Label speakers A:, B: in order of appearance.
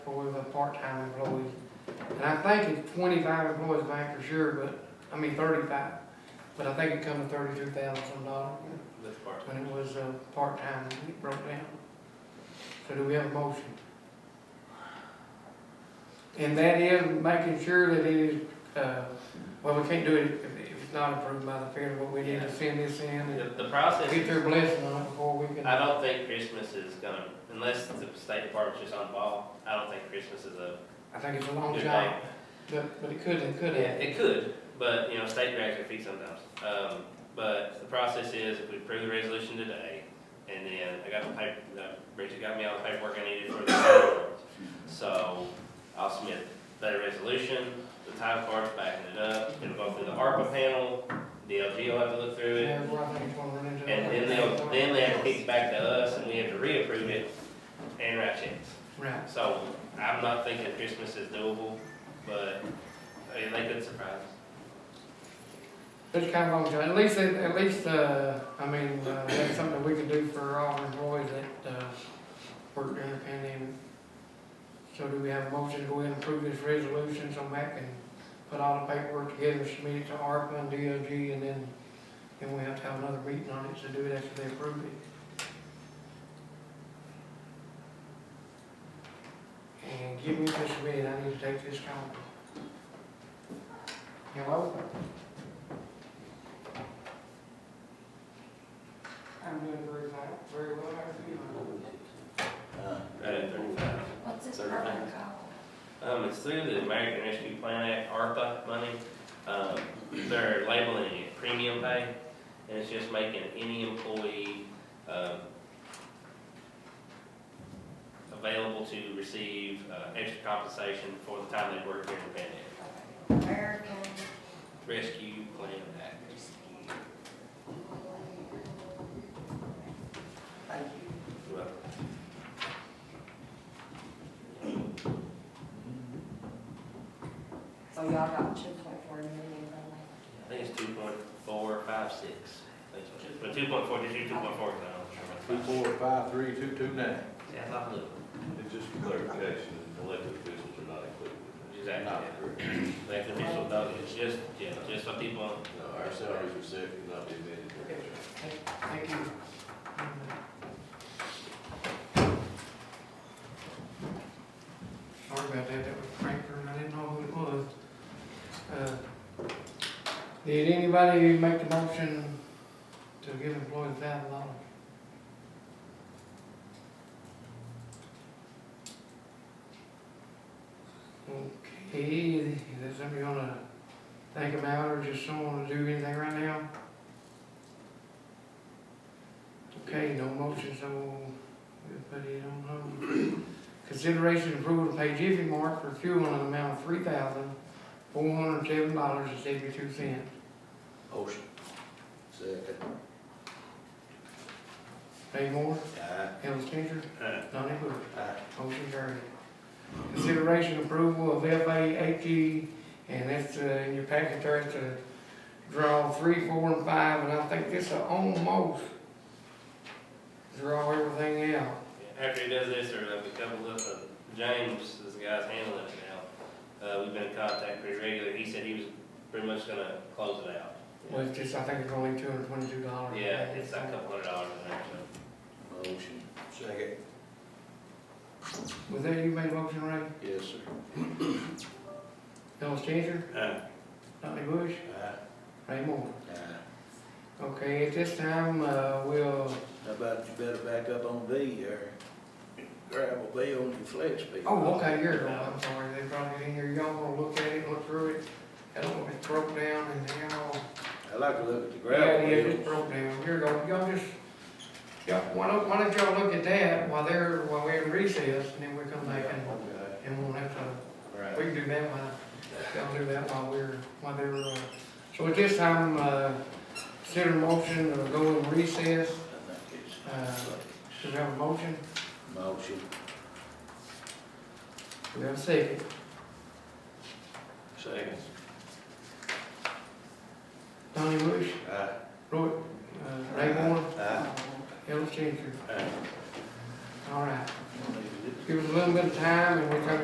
A: with a part-time employee. And I think it's twenty-five employees back for sure, but, I mean thirty-five, but I think it come to thirty-two thousand dollars
B: That's part.
A: when it was, uh, part-time, it broke down. So do we have a motion? And that is making sure that it is, uh, well, we can't do it if, if it's not approved by the fair, but we need to send this in and
B: The, the process,
A: get their
B: is-
A: blessing on it before we can.
B: I don't think Christmas is gonna, unless the State Department's just on ball, I don't think Christmas is a
A: I think it's a long
B: good
A: shot,
B: day.
A: but, but it could, it could
B: Yeah,
A: happen.
B: it could, but, you know, state drags their feet sometimes. Um, but the process is, if we approve the resolution today, and then I got the paper, uh, Bridget got me all the paperwork I needed for the time cards. So I'll submit that resolution, the time card's backing it up, it'll go through the ARPA panel, DLG will have to look through it.
A: Yeah, well, I think it's gonna run into.
B: And then they'll, then they have to kick back to us, and we have to reapprove it and write checks.
A: Right,
B: So I'm not thinking Christmas is doable, but, I mean, they could surprise us.
A: but it's kind of long, shot. at least, it- at least, uh, I mean, uh, that's something we can do for our employees that, uh, work during the pandemic. So do we have a motion to go ahead and approve this resolution, so Matt can put all the paperwork together, submit it to ARPA and DOG, and then, then we have to have another meeting on it to do it after they approve it. And give me this minute, I need to take this call. Hello? I'm doing very fine, very well, how are you?
B: Right at thirty-five.
C: What's this
B: Thirty
C: program
B: minutes.
C: called?
B: Um, it's through the American Rescue Plan Act, ARPA money. Um, they're labeling it premium pay, and it's just making any employee, um, available to receive, uh, extra compensation for the time they worked during the pandemic.
C: American
B: Rescue Plan Act.
C: Rescue. Thank you.
B: Well,
C: So y'all got two point four million from
B: I think it's two point four, five, six. That's what it is. But two point four, just do two point four,
D: Two,
B: I'm not sure.
D: four, five, Uh, three, two, two, nine.
B: Yeah, I thought it
E: It's just for clarification, elected officials are not included.
B: was, exactly.
D: Not correct.
B: Like the official dog, it's just, yeah, just for people
E: No, our salaries are set and not be amended.
A: Thank you. Sorry about that, that was Frank, and I didn't know who it was. Uh, Did anybody make the motion to give employees thousand dollars? Okay, is that something you wanna think about, or just someone to do anything right now? Okay, no motion, so we'll put it on hold. Consideration approval to pay Jiffy Mart for fuel in an amount of three thousand, four hundred and seven dollars and seventy-two cents.
E: Motion. Second.
A: Dave Moore,
E: Aye.
A: Ellis Cantor,
B: Uh,
A: Donnie Bush.
E: Aye.
A: Motion carried. Consideration approval of FA eighty, E and that's, uh, in your packet there, it's a draw three, four, and five, and I think this will almost draw everything out.
B: After he does this, or like a couple of, uh, James is the guy's handling it now. Uh, we've been in contact pretty regular. He said he was pretty much gonna close it out.
A: Well, it's just, I think it's only two hundred twenty-two dollars.
B: Yeah, it's like a couple hundred dollars in there, so.
E: Motion. Second.
A: Was that you made a motion, Ray?
E: Yes, sir.
A: Ellis Changer,
B: Uh,
A: Donnie Bush,
E: Aye.
A: Ray Moore.
E: Aye.
A: Okay, at this time, uh, we'll,
E: How about you better back up on B or gravel B on your flex B?
A: oh, okay, here, it is. I'm sorry, they brought it in here, y'all wanna look at it, look through it? I don't know if it's broke down and how.
E: I like to look at the
A: Yeah,
E: gravel
A: yeah, it's
E: bills.
A: broke down, here you go, y'all just, yeah, why don't, why don't y'all look at that while they're, while we're in recess, and then we'll come back and,
E: Okay.
A: and we'll have to
E: Right.
A: We can do that while, I'll do that while we're, while they're, uh, so at this time, uh, consider motion to go in recess,
E: I think it's-
A: Uh, do we have a motion?
E: Motion.
A: Do we have a second?
E: Second.
A: Donnie Bush,
E: Aye.
A: Roy, uh, Ray Moore,
E: Aye.
A: Ellis Changer,
E: Aye.
A: all right.
E: Leave it.
A: give us a little bit of time and we try to